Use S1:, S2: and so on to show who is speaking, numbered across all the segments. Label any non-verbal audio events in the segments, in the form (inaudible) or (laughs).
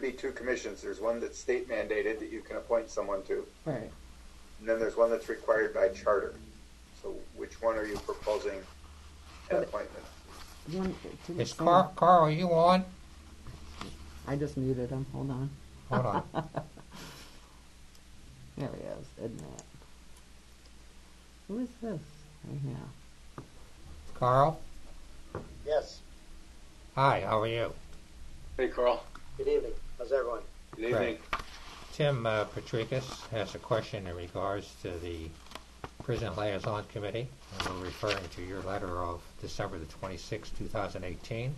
S1: be two commissions. There's one that's state mandated that you can appoint someone to,
S2: Right.
S1: and then there's one that's required by charter. So which one are you proposing an appointment?
S2: One, it didn't
S3: Is
S2: say.
S3: Carl, Carl, are you on?
S2: I just muted him. Hold on.
S3: Hold on.
S2: There he is. Admit. Who is this? Right now.
S3: Carl?
S4: Yes.
S3: Hi, how are you?
S5: Hey, Carl.
S4: Good evening. How's everyone?
S3: Great.
S5: Good evening.
S3: Tim uh, Patricus has a question in regards to the Prison Liaison Committee. And we're referring to your letter of December the 26th, 2018,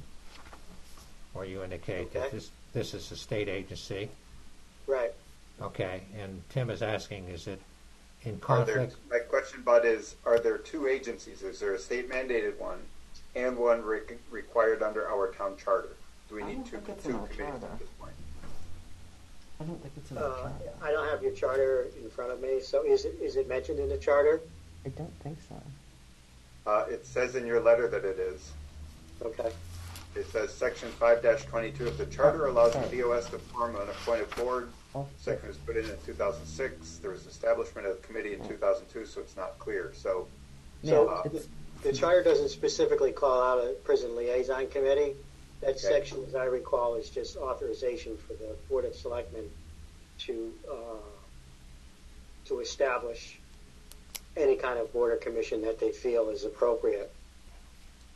S3: where you indicate that
S4: Okay.
S3: this, this is a state agency.
S4: Right.
S3: Okay, and Tim is asking, is it in
S1: Are there,
S3: conflict?
S1: my question, Bud, is are there two agencies? Is there a state mandated one and one re- required under our town charter? Do we
S2: I
S1: need
S2: don't
S1: two,
S2: think it's in
S1: two
S2: our
S1: committees
S2: charter.
S1: at this point?
S2: I don't think it's in the
S4: Uh,
S2: charter.
S4: I don't have your charter in front of me, so is it, is it mentioned in the charter?
S2: I don't think so.
S1: Uh, it says in your letter that it is.
S4: Okay.
S1: It says section five twenty-two of the charter allows
S2: Okay.
S1: the DOS to form an appointed board.
S2: Oh,
S1: Section was put in in two thousand six. There was establishment of the committee in two thousand two, so it's not clear. So, uh,
S2: yeah,
S4: So uh,
S2: it's,
S4: the charter doesn't specifically call out a prison liaison committee. That section, as I recall, is just authorization for the Board of Selectmen to, uh, to establish any kind of board or commission that they feel is appropriate.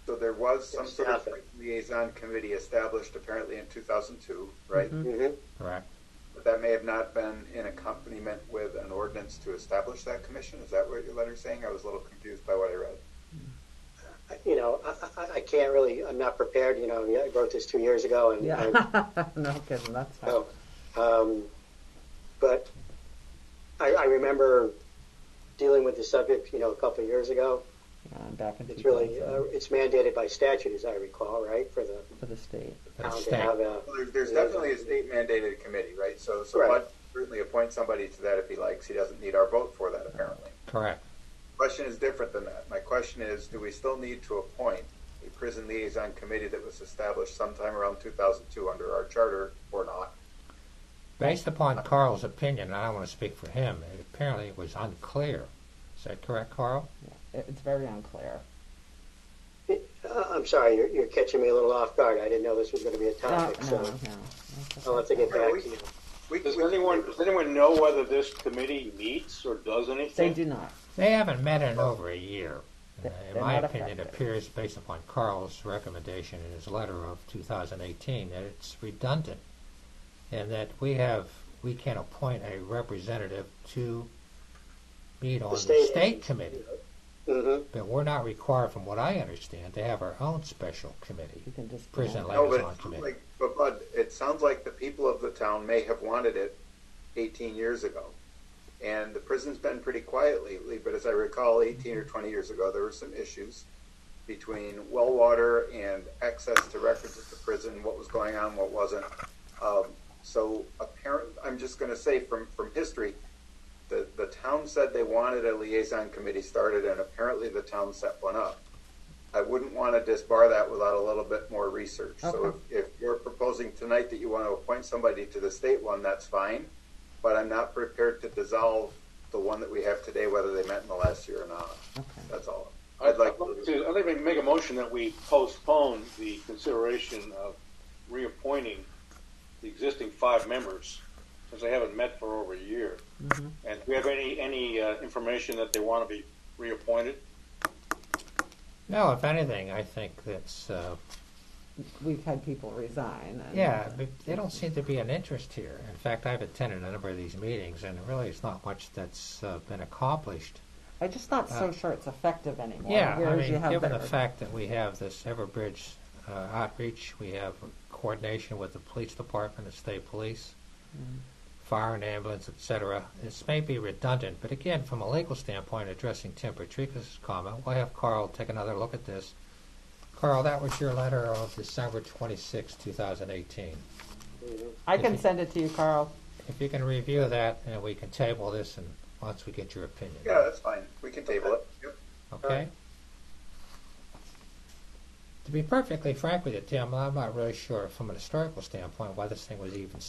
S1: so there was some sort of
S4: Staffing.
S1: liaison committee established apparently in two thousand two, right?
S4: Mm-hmm.
S3: Correct.
S1: But that may have not been in accompaniment with an ordinance to establish that commission. Is that what your letter's saying? I was a little confused by what I read.
S4: You know, I, I, I can't really, I'm not prepared, you know, I wrote this two years ago and
S2: yeah.
S4: and Um,
S2: (laughs) no kidding. That's how.
S4: So, um, but I, I remember dealing with the subject, you know, a couple of years ago.
S2: yeah, I'm back in
S4: It's really
S2: 2000
S4: uh, it's mandated by statute, as I recall, right, for the
S2: uh, for the state.
S3: That's
S4: town to
S3: state.
S4: have a.
S1: Well, there, there's
S4: Yeah.
S1: definitely a state mandated committee, right? So, so
S4: Right.
S1: Bud certainly appoint somebody to that if he likes. He doesn't need our vote for that apparently.
S3: Correct.
S1: question is different than that. My question is, do we still need to appoint a prison liaison committee that was established sometime around 2002 under our charter or not?
S3: Based upon Carl's opinion, and I want to speak for him, it apparently was unclear. Is that correct, Carl?
S2: Yeah, it- it's very unclear.
S4: Uh, I'm sorry, you're, you're catching me a little off guard. I didn't know this was going to be a
S2: Uh, No,
S4: topic,
S2: no,
S4: so Oh,
S2: no.
S4: I'll have to get back
S1: we-
S4: to you.
S1: We,
S5: Does
S1: we-
S5: anyone, does anyone know whether this committee meets or does
S2: They
S5: anything?
S2: do not.
S3: They haven't met in over a year. Uh,
S2: They-
S3: in
S2: they're
S3: my
S2: not
S3: opinion, it
S2: effective.
S3: appears, based upon Carl's recommendation in his letter of 2018, that it's redundant, and that we have we can appoint a representative to meet on the state,
S4: state agency.
S3: committee,
S4: Mm-hmm.
S3: but we're not required, from what I understand, to have our own special committee.
S2: You can just
S3: Prison
S2: yeah.
S3: life.
S1: no, but, it
S3: liaison
S1: sounds
S3: committee.
S1: like, but Bud, it sounds like the people of the town may have wanted it 18 years ago. And the prison's been pretty quiet lately, but as I recall, 18 or 20 years ago, there were some issues between well water and access to records at the prison, what was going on, what wasn't. Um, so apparent, I'm just going to say from, from history, the, the town said they wanted a liaison committee started, and apparently the town set one up. I wouldn't want to disbar that without a little bit more research. So
S2: Okay.
S1: if, if you're proposing tonight that you want to appoint somebody to the state one, that's fine. But I'm not prepared to dissolve the one that we have today, whether they met in the last year or not.
S2: Okay.
S1: That's all.
S5: I'd like to, I'd like to make a motion that we postpone the consideration of reappointing the existing five members, since they haven't met for over a year.
S2: Mm-hmm.
S5: And do we have any, any uh, information that they want to be reappointed?
S3: No, if anything, I think that's uh,
S2: We've had people resign. And,
S3: Yeah, but they don't seem to be an interest here. In fact, I've attended a number of these meetings, and really, it's not much that's uh, been accomplished.
S2: I'm just not so
S3: Uh,
S2: sure it's effective anymore.
S3: yeah, I
S2: Whereas you
S3: mean,
S2: have
S3: given the
S2: better-
S3: fact that we have this Everbridge uh, outreach, we have coordination with the police department, the state police,
S2: Mm-hmm.
S3: fire and ambulance, etc. This may be redundant, but again, from a legal standpoint, addressing Tim Patrica's comment, we'll have Carl take another look at this. Carl, that was your letter of December 26, 2018.
S2: I can
S3: Okay.
S2: send it to you, Carl.
S3: If you can review that, and we can table this, and once we get your opinion.
S1: Yeah, that's fine. We can table it. Yep.
S3: Okay? To be perfectly frank with you, Tim, I'm not really sure from an historical standpoint why this thing was even